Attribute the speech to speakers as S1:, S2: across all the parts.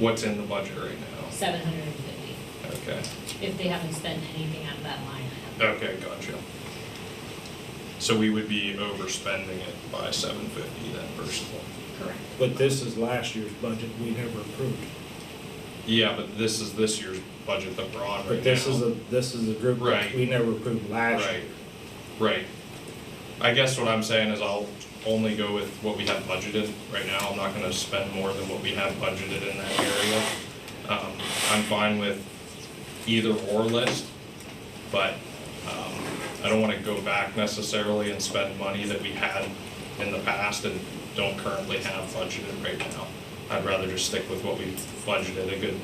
S1: What's in the budget right now?
S2: seven hundred and fifty,
S1: Okay,
S2: if they haven't spent anything out of that line item.
S1: okay, gotcha. So we would be overspending it by seven fifty then first of all.
S2: Correct.
S3: But this is last year's budget, we never approved.
S1: Yeah, but this is this year's budget that we're on right now.
S3: But this is a, this is a group
S1: Right.
S3: that we never approved last
S1: Right,
S3: year.
S1: right. I guess what I'm saying is I'll only go with what we have budgeted right now. I'm not gonna spend more than what we have budgeted in that area. Um, I'm fine with either or list, but, um, I don't wanna go back necessarily and spend money that we had in the past and don't currently have budgeted right now. I'd rather just stick with what we've budgeted. A good,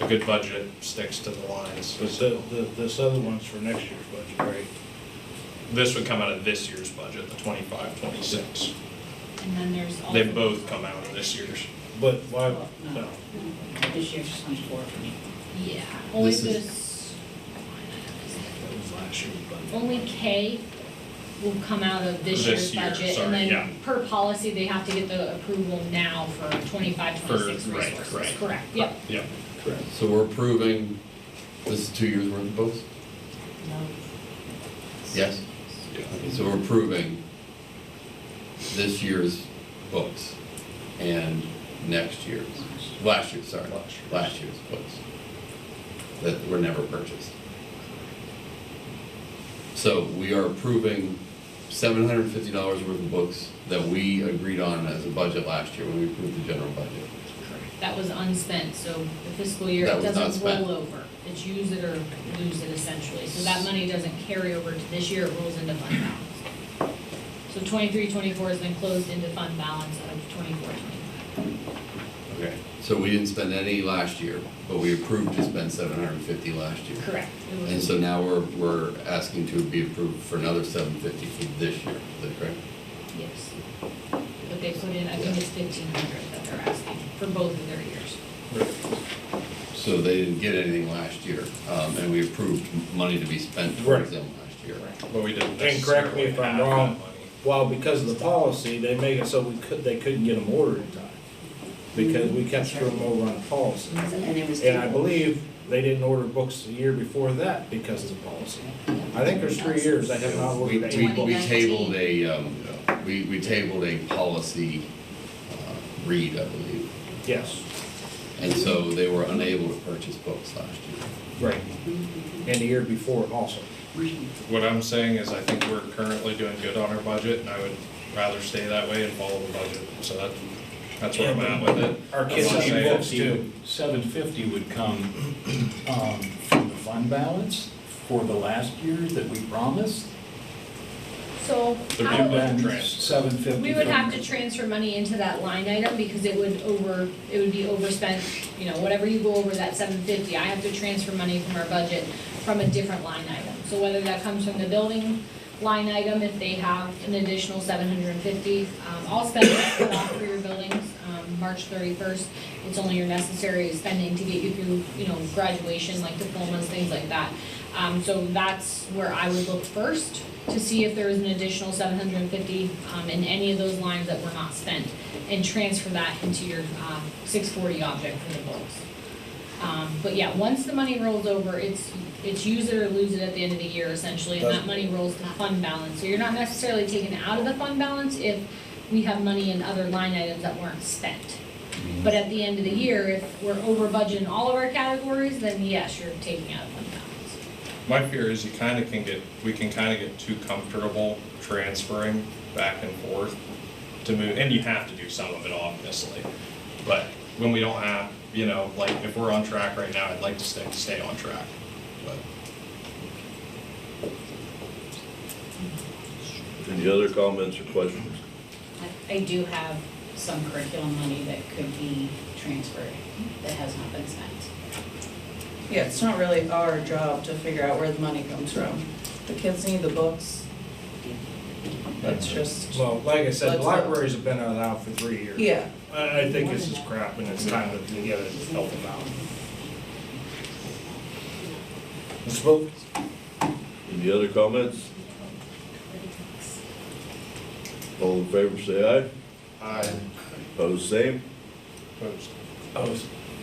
S1: a good budget sticks to the lines.
S3: But the, the, this other one's for next year's budget, right?
S1: This would come out of this year's budget, the twenty-five, twenty-six.
S2: And then there's also.
S1: They both come out of this year's.
S3: But why,
S4: Well,
S3: no,
S4: no. This year's twenty-four.
S2: Yeah, only
S5: This is-
S2: this.
S5: That was last year's budget.
S2: Only K will come out of this
S1: This
S2: year's
S1: year,
S2: budget,
S1: sorry,
S2: and
S1: yeah.
S2: then per policy, they have to get the approval now for twenty-five,
S1: For-
S2: twenty-six
S1: right,
S2: resources,
S1: right.
S2: correct, yep.
S1: Yep.
S3: correct.
S5: So we're approving, this is two years worth of books? Yes. Okay, so we're approving this year's books and next year's, last year's, sorry, last year's books that were never purchased. So we are approving seven hundred and fifty dollars worth of books that we agreed on as a budget last year when we approved the general budget.
S2: That was unspent, so the fiscal year,
S5: That
S2: it
S5: was not
S2: doesn't
S5: spent.
S2: roll over, it's use it or lose it essentially, so that money doesn't carry over to this year, it rolls into fund balance. So twenty-three, twenty-four has been closed into fund balance out of twenty-four, twenty-five.
S5: Okay. So we didn't spend any last year, but we approved to spend seven hundred and fifty last year.
S2: Correct. It was-
S5: And so now we're, we're asking to be approved for another seven fifty for this year, is that correct?
S2: Yes. But they put in, I think it's fifteen hundred that they're asking for both of their years.
S5: So they didn't get anything last year, um, and we approved money to be spent towards them last year.
S1: But we didn't
S3: And correct
S1: necessarily
S3: me if I'm
S1: have that
S3: wrong.
S1: money.
S3: Well, because of the policy, they make it so we could, they couldn't get them ordered in time. Because we kept screwing them over on the policy.
S4: And it was.
S3: And I believe they didn't order books the year before that because of the policy. I think there's three years they have not
S5: We,
S3: ordered
S5: we,
S3: any
S5: we
S3: books.
S5: tabled a, um, we, we tabled a policy, uh, read, I believe.
S3: Yes,
S5: And so they were unable to purchase books last year.
S3: right. And the year before also.
S1: What I'm saying is I think we're currently doing good on our budget and I would rather stay that way and follow the budget. So that, that's where I'm at with it.
S3: Our
S1: I'm
S3: kids
S1: not
S3: have
S1: saying-
S3: books too.
S6: Seven fifty would come, um, from the fund balance for the last year that we promised.
S2: So
S1: The
S2: how-
S1: rebate. transfer.
S6: Seven fifty.
S2: we would have to transfer money into that line item because it would over, it would be overspent, you know, whatever you go over that seven fifty, I have to transfer money from our budget from a different line item. So whether that comes from the building line item, if they have an additional seven hundred and fifty, um, all spending is put off for your buildings, um, March thirty-first. It's only your necessary spending to get you through, you know, graduation, like diplomas, things like that. Um, so that's where I would look first to see if there is an additional seven hundred and fifty, um, in any of those lines that were not spent. And transfer that into your, um, six forty object for the books. Um, but yeah, once the money rolls over, it's, it's use it or lose it at the end of the year essentially, and that money rolls to fund balance. So you're not necessarily taken out of the fund balance if we have money in other line items that weren't spent. But at the end of the year, if we're over budgeting all of our categories, then yes, you're taking out of fund balance.
S1: My fear is you kinda can get, we can kinda get too comfortable transferring back and forth to move, and you have to do some of it obviously. But when we don't have, you know, like if we're on track right now, I'd like to stay, stay on track. But
S7: Any other comments or questions?
S4: I do have some curriculum money that could be transferred that has not been spent.
S8: Yeah, it's not really our job to figure out where the money comes from. The kids need the books. That's just,
S3: Well, like I said, the
S8: Let's look.
S3: libraries have been allowed for three years.
S8: yeah.
S3: I, I think this is crap and it's time to get it help them out. Let's vote.
S7: Any other comments? All in favor, say aye.
S1: I
S7: Opposed, same.
S1: opposed.
S3: Oh,